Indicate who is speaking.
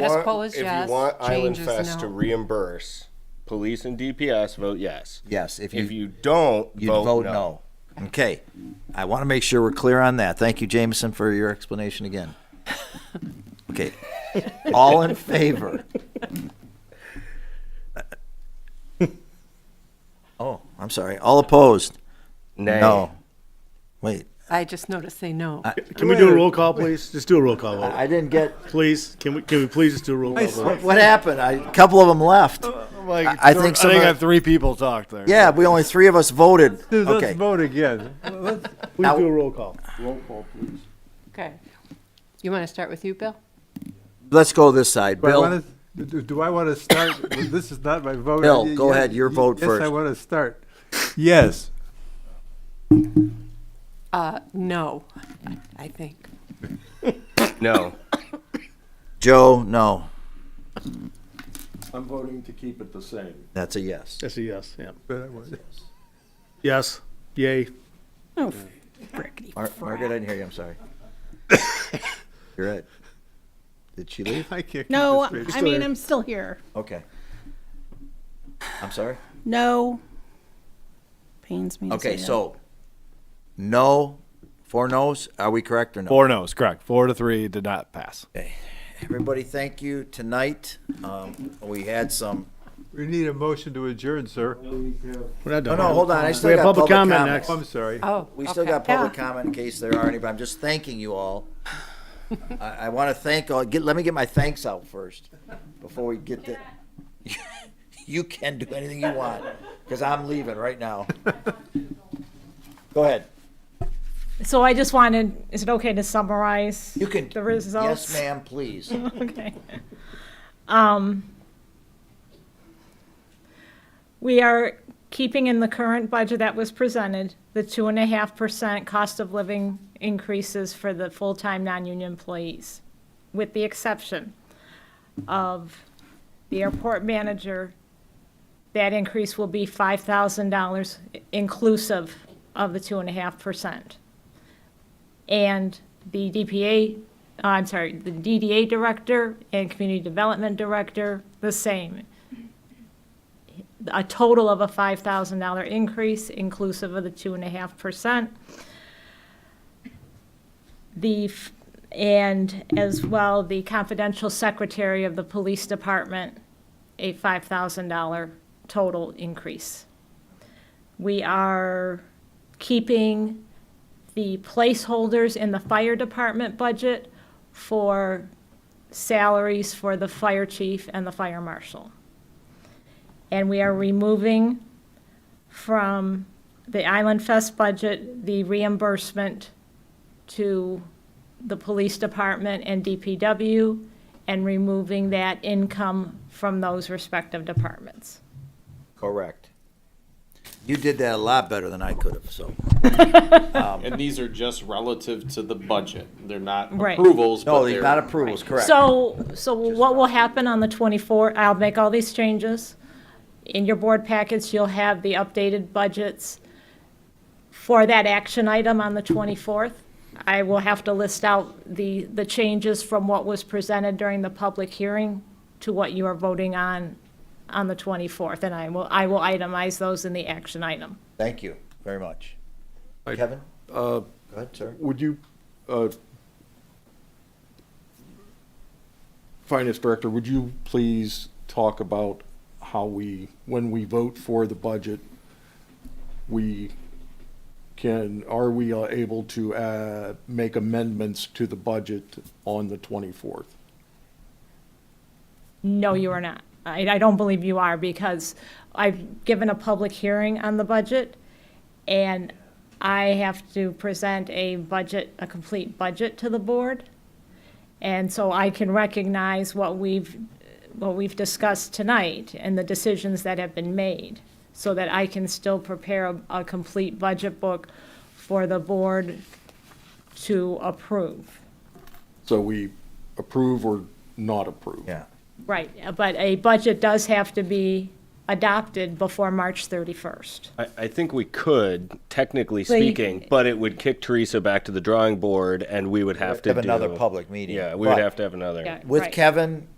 Speaker 1: Status
Speaker 2: want-
Speaker 1: quo is
Speaker 2: if
Speaker 1: yes,
Speaker 2: you want Island
Speaker 1: change is
Speaker 2: Fest to
Speaker 1: no.
Speaker 2: reimburse police and DPS, vote yes.
Speaker 3: Yes, if
Speaker 2: If
Speaker 3: you,
Speaker 2: you don't,
Speaker 3: you'd vote no. Okay, I want to make sure we're clear on that. Thank you, Jameson, for your explanation again. Okay, all in favor? Oh, I'm sorry, all opposed?
Speaker 2: Nay.
Speaker 3: No. Wait,
Speaker 1: I just noticed they no.
Speaker 4: Can we do a roll call, please? Just do a roll call vote,
Speaker 3: I didn't get,
Speaker 4: please. Can we? Can we please just do a roll call vote?
Speaker 3: what what happened? I- A couple of them left.
Speaker 5: Like,
Speaker 3: I- I think some
Speaker 5: I think
Speaker 3: of-
Speaker 5: I have three people talked there.
Speaker 3: Yeah, we only three of us voted.
Speaker 5: Dude, let's
Speaker 3: Okay,
Speaker 5: vote again.
Speaker 4: Please do a roll call.
Speaker 1: Okay. You want to start with you, Bill?
Speaker 3: let's go this side.
Speaker 5: Do I
Speaker 3: Bill,
Speaker 5: wanna- Do do I want to start? This is not my vote.
Speaker 3: Bill,
Speaker 5: Y-
Speaker 3: go
Speaker 5: yes-
Speaker 3: ahead, your
Speaker 5: y-
Speaker 3: vote
Speaker 5: Yes, I
Speaker 3: first.
Speaker 5: want to start. Yes.
Speaker 1: Uh, no, I think.
Speaker 2: No.
Speaker 3: Joe, no.
Speaker 6: I'm voting to keep it the same.
Speaker 3: That's a yes.
Speaker 4: That's a yes. Yeah.
Speaker 5: but I want-
Speaker 4: Yes. Yay.
Speaker 3: Mar- Margaret, I didn't hear you. I'm sorry. You're right. Did she leave?
Speaker 5: I can't.
Speaker 7: No,
Speaker 5: keep this
Speaker 7: I
Speaker 5: straight.
Speaker 7: mean, I'm still here.
Speaker 3: Okay. I'm sorry.
Speaker 7: No. Pains me. to
Speaker 3: Okay,
Speaker 7: say it.
Speaker 3: so no, four no's. Are we correct or no?
Speaker 5: Four no's, correct. Four to three did not pass.
Speaker 3: Everybody, thank you tonight. Um, we had some.
Speaker 5: We need a motion to adjourn, sir.
Speaker 4: We're not
Speaker 3: No,
Speaker 4: done.
Speaker 3: Oh, no, hold on. I still
Speaker 4: We have
Speaker 3: got
Speaker 4: public comment next.
Speaker 5: I'm sorry.
Speaker 1: Oh,
Speaker 3: We still
Speaker 1: okay.
Speaker 3: got public
Speaker 1: Yeah.
Speaker 3: comment in case there are any, but I'm just thanking you all. I, I want to thank all. Get, let me get my thanks out first before we get the. you can do anything you want because I'm leaving right now. Go ahead.
Speaker 7: So I just wanted, is it okay to summarize?
Speaker 3: You can.
Speaker 7: The results.
Speaker 3: Yes, ma'am. Please.
Speaker 7: Okay. Um, we are keeping in the current budget that was presented, the two and a half percent cost of living increases for the full-time non-union employees, with the exception of the airport manager. That increase will be five thousand dollars inclusive of the two and a half percent and the DPA, uh, I'm sorry, the DDA director and community development director, the same. A total of a five thousand dollar increase inclusive of the two and a half percent. The, f- and as well, the confidential secretary of the police department, a five thousand dollar total increase. We are keeping the placeholders in the fire department budget for salaries for the fire chief and the fire marshal. And we are removing from the Island Fest budget the reimbursement to the police department and DPW and removing that income from those respective departments.
Speaker 3: Correct. You did that a lot better than I could have. So
Speaker 8: And these are just relative to the budget. They're not
Speaker 7: Right.
Speaker 8: approvals,
Speaker 3: no,
Speaker 8: but
Speaker 3: they're
Speaker 8: they're.
Speaker 3: not approvals. Correct.
Speaker 7: So, so what will happen on the 24th, I'll make all these changes. In your board packets, you'll have the updated budgets for that action item on the 24th. I will have to list out the, the changes from what was presented during the public hearing to what you are voting on, on the 24th. And I will, I will itemize those in the action item.
Speaker 3: Thank you very much. Kevin. Uh, Go ahead, sir.
Speaker 6: Would you, uh, Finance Director, would you please talk about how we, when we vote for the budget, we can, are we uh, able to uh, make amendments to the budget on the 24th?
Speaker 7: No, you are not. I, I don't believe you are because I've given a public hearing on the budget and I have to present a budget, a complete budget to the board. And so I can recognize what we've, what we've discussed tonight and the decisions that have been made so that I can still prepare a, a complete budget book for the board to approve.
Speaker 6: So we approve or not approve?
Speaker 3: Yeah.
Speaker 7: Right, but a budget does have to be adopted before March 31st.
Speaker 2: I, I think we could, technically
Speaker 7: Well, you-
Speaker 2: speaking, but it would kick Teresa back to the drawing board and we would have to
Speaker 3: Have another
Speaker 2: do-
Speaker 3: public meeting.
Speaker 2: Yeah, we would
Speaker 3: But-
Speaker 2: have to have another.
Speaker 7: Yeah,
Speaker 3: With
Speaker 7: right.
Speaker 3: Kevin,